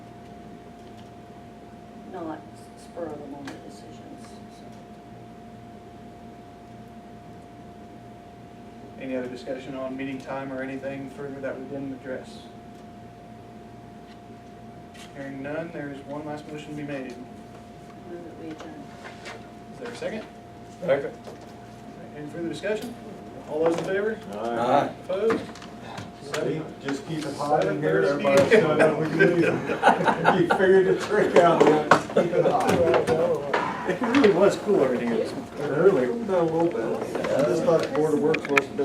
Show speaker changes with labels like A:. A: not spur of the moment decisions, so.
B: Any other discussion on meeting time or anything further that we didn't address? Hearing none, there is one last motion to be made. Is
A: Move that we adjourn.
B: there a second?
C: Second.
B: Any further discussion? All those in favor?
C: Aye.
B: Opposed? Seven-
D: Just keep it hot in here,
B: Seven
D: everybody's
B: thirty.
D: done what we do. You figured the trick out, man. keep it hot.
C: It really was cool, everything. It was
D: Early, a little bit. Just thought the board of works was